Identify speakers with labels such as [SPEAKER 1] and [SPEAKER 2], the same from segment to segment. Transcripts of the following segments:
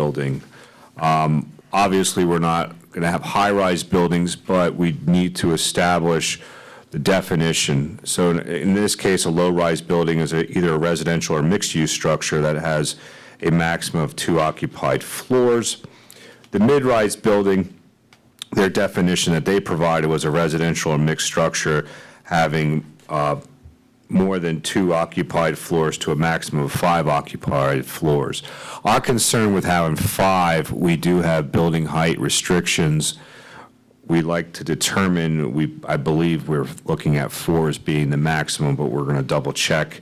[SPEAKER 1] building. Um, Obviously, we're not going to have high-rise buildings, but we need to establish the definition. So in- in this case, a low-rise building is a- either a residential or mixed-use structure that has a maximum of two occupied floors. The mid-rise building, their definition that they provided was a residential or mixed structure having uh, more than two occupied floors to a maximum of five occupied floors. Our concern with how in five, we do have building height restrictions. We like to determine, we, I believe we're looking at four as being the maximum, but we're gonna double check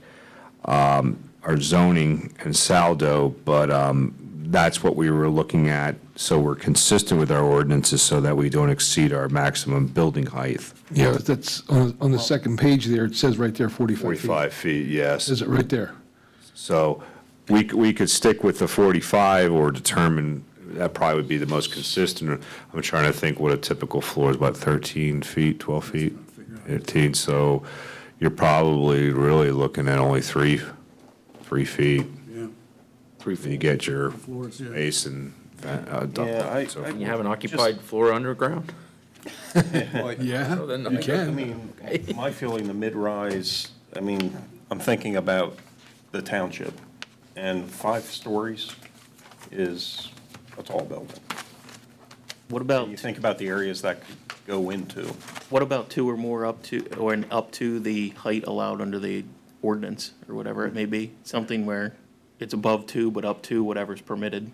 [SPEAKER 1] um, our zoning and saldo, but um, that's what we were looking at. So we're consistent with our ordinances so that we don't exceed our maximum building height.
[SPEAKER 2] Yeah, that's, on, on the second page there, it says right there 45 feet.
[SPEAKER 1] 45 feet, yes.
[SPEAKER 2] Says it right there.
[SPEAKER 1] So we, c- we could stick with the 45 or determine, that probably would be the most consistent. I'm trying to think what a typical floor is, about 13 feet, 12 feet, 15, so you're probably really looking at only three, three feet.
[SPEAKER 3] Yeah.
[SPEAKER 1] Three feet. You get your
[SPEAKER 3] Floors, yeah.
[SPEAKER 1] basin, uh, duct
[SPEAKER 4] Yeah, I-
[SPEAKER 1] and so
[SPEAKER 4] I-
[SPEAKER 1] forth.
[SPEAKER 5] You have an occupied floor underground?
[SPEAKER 2] Yeah,
[SPEAKER 5] Oh, then
[SPEAKER 2] you
[SPEAKER 5] I-
[SPEAKER 4] I
[SPEAKER 2] can.
[SPEAKER 4] mean, my feeling, the mid-rise, I mean, I'm thinking about the township, and five stories is a tall building.
[SPEAKER 6] What about,
[SPEAKER 4] You think about the areas that could go into,
[SPEAKER 6] what about two or more up to, or an up to the height allowed under the ordinance, or whatever it may be? Something where it's above two, but up to whatever's permitted.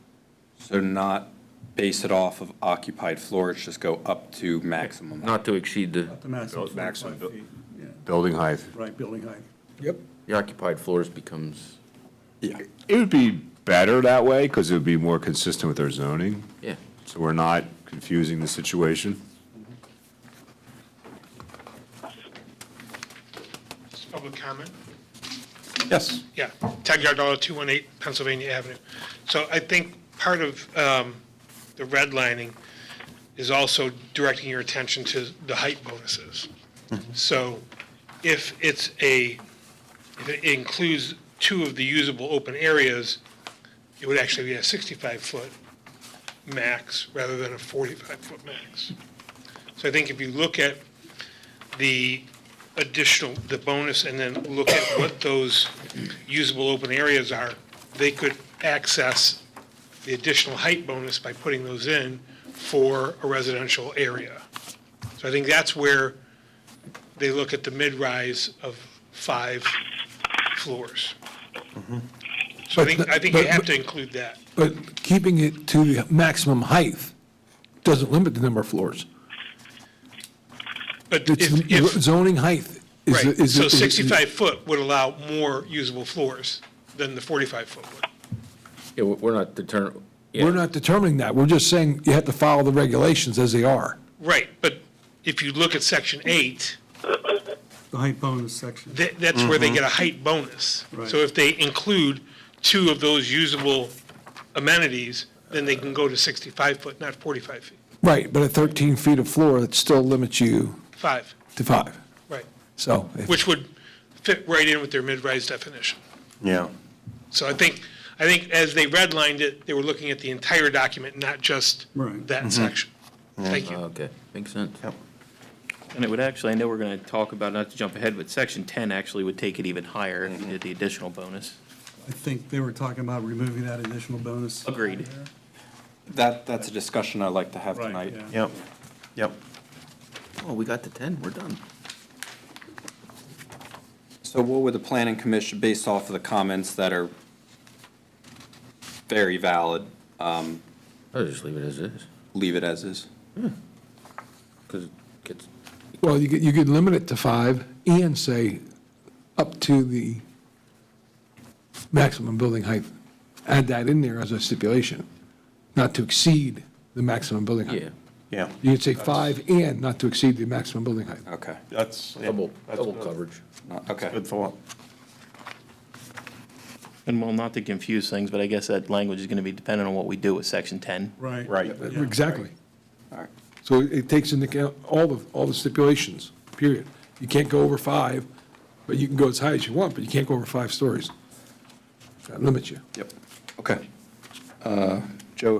[SPEAKER 7] So not base it off of occupied floors, just go up to maximum.
[SPEAKER 5] Not to exceed the,
[SPEAKER 3] The maximum
[SPEAKER 1] Built- maximum
[SPEAKER 3] 45
[SPEAKER 1] built-
[SPEAKER 3] feet, yeah,
[SPEAKER 1] Building height.
[SPEAKER 3] right, building height.
[SPEAKER 5] the occupied floors becomes,
[SPEAKER 1] It would be better that way because it would be more consistent with our zoning,
[SPEAKER 5] yeah.
[SPEAKER 1] so we're not confusing the situation.
[SPEAKER 8] Public comment?
[SPEAKER 4] yes,
[SPEAKER 8] Yeah, Ted Gardella, 218 Pennsylvania Avenue. So I think part of um, the redlining is also directing your attention to the height bonuses. So if it's a, if it includes two of the usable open areas, it would actually be a 65-foot max rather than a 45-foot max. So I think if you look at the additional, the bonus, and then look at what those usable open areas are, they could access the additional height bonus by putting those in for a residential area. So I think that's where they look at the mid-rise of five floors. So I think, I think you
[SPEAKER 9] Mm-hmm. But- but-
[SPEAKER 8] have to include that.
[SPEAKER 9] But keeping it to the maximum height doesn't limit the number of floors.
[SPEAKER 8] But
[SPEAKER 9] It's
[SPEAKER 8] if, if,
[SPEAKER 9] zoning height is.
[SPEAKER 8] right,
[SPEAKER 9] is-
[SPEAKER 8] so
[SPEAKER 9] is-
[SPEAKER 8] 65 foot would allow more usable floors than the 45 foot would.
[SPEAKER 5] Yeah, we're- we're not deterring,
[SPEAKER 9] We're
[SPEAKER 5] yeah,
[SPEAKER 9] not determining that. We're just saying you have to follow the regulations as they are.
[SPEAKER 8] Right, but if you look at section eight,
[SPEAKER 3] The height bonus section.
[SPEAKER 8] that, that's where
[SPEAKER 9] Mm-hmm.
[SPEAKER 8] they get a height bonus.
[SPEAKER 3] Right.
[SPEAKER 8] So if they include two of those usable amenities, then they can go to sixty-five foot, not forty-five feet,
[SPEAKER 9] Right, but at 13 feet of floor, it still limits you
[SPEAKER 8] five,
[SPEAKER 9] to five.
[SPEAKER 8] right,
[SPEAKER 9] So. if-
[SPEAKER 8] which would fit right in with their mid-rise definition.
[SPEAKER 4] yeah.
[SPEAKER 8] So I think, I think as they redlined it, they were looking at the entire document, not just
[SPEAKER 3] Right.
[SPEAKER 8] that section. Thank you.
[SPEAKER 5] okay, makes sense.
[SPEAKER 6] And it would actually, I know we're gonna talk about, not to jump ahead, but section ten actually would take it even higher if you did the additional bonus.
[SPEAKER 3] I think they were talking about removing that additional bonus.
[SPEAKER 6] Agreed.
[SPEAKER 7] That, that's a discussion I'd like to have
[SPEAKER 3] Right,
[SPEAKER 7] tonight.
[SPEAKER 3] yeah.
[SPEAKER 4] Yep, yep.
[SPEAKER 5] Oh, we got to 10, we're done.
[SPEAKER 7] So what would the planning commission, based off of the comments that are very valid,
[SPEAKER 5] I'll just leave it as is,
[SPEAKER 7] leave it as is?
[SPEAKER 5] because it gets,
[SPEAKER 9] Well, you could, you could limit it to five and say up to the maximum building height. Add that in there as a stipulation, not to exceed the maximum building height.
[SPEAKER 5] yeah,
[SPEAKER 4] Yeah,
[SPEAKER 9] You could say five and not to exceed the maximum building height.
[SPEAKER 7] Okay,
[SPEAKER 4] that's. yeah,
[SPEAKER 5] double,
[SPEAKER 4] that's
[SPEAKER 5] double
[SPEAKER 4] good.
[SPEAKER 5] coverage.
[SPEAKER 7] okay.
[SPEAKER 4] Good thought.
[SPEAKER 6] And well, not to confuse things, but I guess that language is gonna be dependent on what we do with section ten.
[SPEAKER 3] Right.
[SPEAKER 4] Right.
[SPEAKER 3] Yeah.
[SPEAKER 9] Exactly.
[SPEAKER 7] All right.
[SPEAKER 9] So it takes into account all the, all the stipulations, period. You can't go over five, but you can go as high as you want, but you can't go over five stories. That limits you.
[SPEAKER 7] Yep, okay. Uh,